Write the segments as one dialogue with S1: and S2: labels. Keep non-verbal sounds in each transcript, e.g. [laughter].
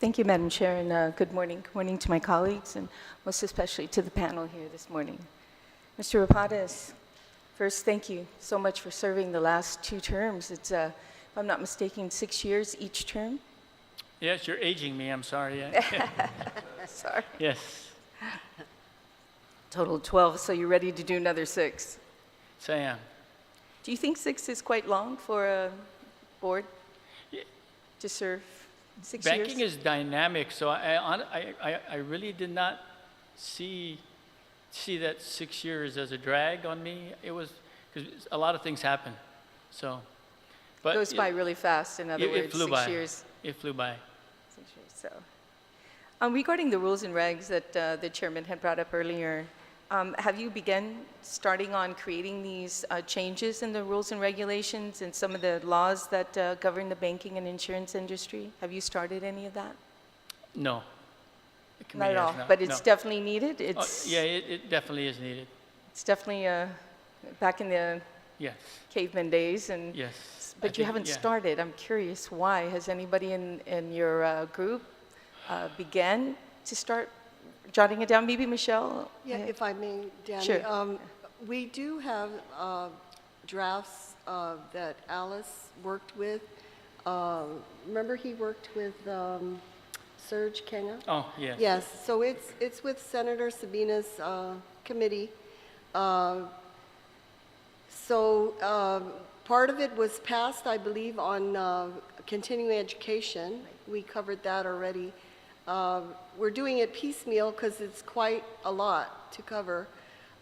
S1: Thank you, Madam Chair, and uh, good morning. Good morning to my colleagues, and most especially to the panel here this morning. Mr. Rapadas, first, thank you so much for serving the last two terms. It's, uh, if I'm not mistaken, six years each term?
S2: Yes, you're aging me,
S1: [laughs]
S2: I'm sorry. Yeah.
S1: Sorry.
S2: Yes,
S1: Total 12, so you're ready to do another six.
S2: so I am.
S1: Do you think six is quite long for a board to serve six years?
S2: Banking is dynamic, so I, I hon- I, I- I really did not see, see that six years as a drag on me. It was, because a lot of things happen, so. but
S1: Goes
S2: it-
S1: by really fast, in other
S2: it- it
S1: words,
S2: flew
S1: six
S2: by.
S1: years.
S2: It flew by.
S1: essentially, So, um, regarding the rules and regs that uh, the chairman had brought up earlier, um, have you begun starting on creating these uh, changes in the rules and regulations and some of the laws that uh, govern the banking and insurance industry? Have you started any of that?
S2: No. The
S1: Not
S2: committee
S1: at
S2: has
S1: all, but it's
S2: no.
S1: definitely needed.
S2: Oh,
S1: It's
S2: Yeah, it, it definitely is needed.
S1: it's definitely uh, back in the
S2: Yes,
S1: caveman days and.
S2: yes. I
S1: But you
S2: think-
S1: haven't
S2: yeah.
S1: started. I'm curious why. Has anybody in, in your uh, group uh, began to start jotting it down? Maybe Michelle?
S3: Yeah,
S1: Uh,
S3: if I may, Danny.
S1: Sure.
S3: um, We do have uh, drafts uh, that Alice worked with. Uh, Remember, he worked with um, Serge Kenga?
S2: Oh, yes.
S3: Yes, so it's, it's with Senator Sabina's uh, committee. Uh, So um, part of it was passed, I believe, on uh, continuing education. We covered that already. Uh, We're doing it piecemeal because it's quite a lot to cover.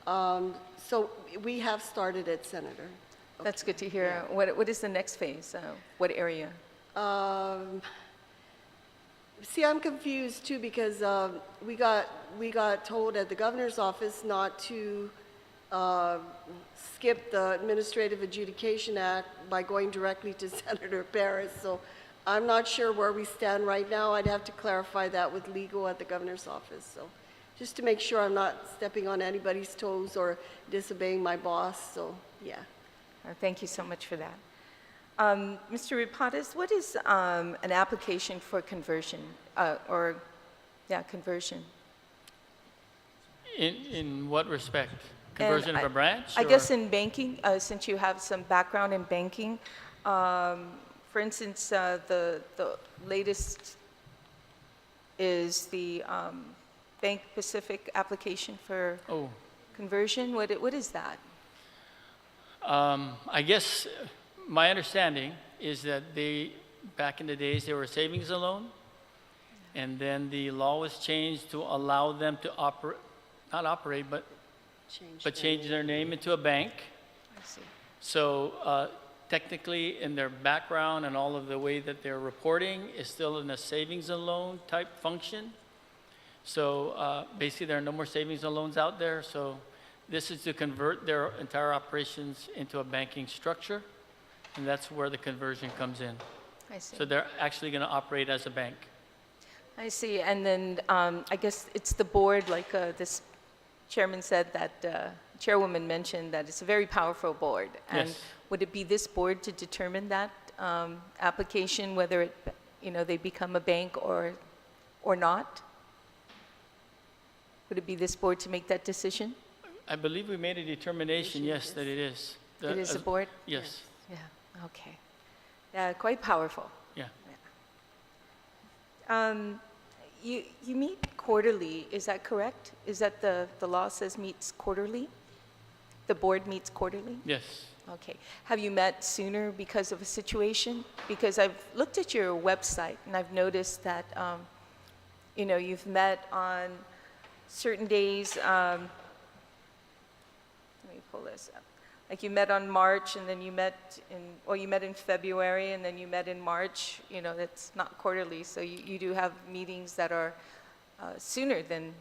S3: Um, So we have started it, Senator.
S1: That's good to hear. What, what is the next phase? Uh, What area?
S3: Um, See, I'm confused too because um, we got, we got told at the governor's office not to uh, skip the Administrative Adjudication Act by going directly to [laughs] Senator Paris. So I'm not sure where we stand right now. I'd have to clarify that with legal at the governor's office. So just to make sure I'm not stepping on anybody's toes or disobeying my boss. So, yeah.
S1: Uh, Thank you so much for that. Um, Mr. Rapadas, what is um, an application for conversion, uh, or, yeah, conversion?
S2: In, in what respect?
S1: And
S2: Conversion of
S1: I-
S2: a branch?
S1: I guess
S2: or-
S1: in banking, uh, since you have some background in banking, um, for instance, uh, the, the latest is the um, Bank Pacific application for
S2: Oh.
S1: conversion. What, i- what is that?
S2: Um, I guess uh, my understanding is that they, back in the days, they were savings and loan, and then the law was changed to allow them to operate, not operate, but,
S3: Change
S2: but
S3: that.
S2: change their name into a bank.
S1: I see.
S2: So uh, technically, in their background and all of the way that they're reporting is still in a savings and loan type function. So uh, basically, there are no more savings and loans out there. So this is to convert their entire operations into a banking structure, and that's where the conversion comes in.
S1: I see.
S2: So they're actually going to operate as a bank.
S1: I see, and then um, I guess it's the board, like uh, this chairman said, that uh, chairwoman mentioned, that it's a very powerful board. And
S2: Yes.
S1: would it be this board to determine that um, application, whether it, you know, they become a bank or, or not? Would it be this board to make that decision?
S2: I believe we made a determination, yes, that it is.
S1: It is a
S2: Uh, as-
S1: board?
S2: Yes,
S1: Yeah, okay. Yeah, quite powerful.
S2: yeah.
S1: Um, You, you meet quarterly, is that correct? Is that the, the law says meets quarterly? The board meets quarterly?
S2: Yes.
S1: Okay. Have you met sooner because of a situation? Because I've looked at your website and I've noticed that, um, you know, you've met on certain days, um, let me pull this up. Like you met on March and then you met in, or you met in February and then you met in March, you know, that's not quarterly. So you, you do have meetings that are uh, sooner than,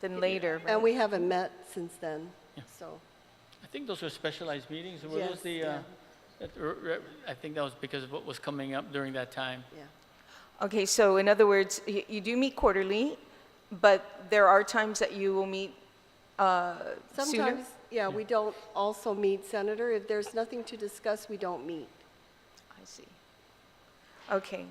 S1: than later, right?
S3: And we haven't met since then, so.
S2: I think those were specialized meetings, were those
S3: Yes,
S2: the, uh,
S3: yeah.
S2: that re- re- I think that was because of what was coming up during that time.
S3: Yeah.
S1: Okay, so in other words, y- you do meet quarterly, but there are times that you will meet uh, sooner?
S3: Sometimes, yeah, we don't also meet, Senator. If there's nothing to discuss, we don't meet.
S1: I see. Okay.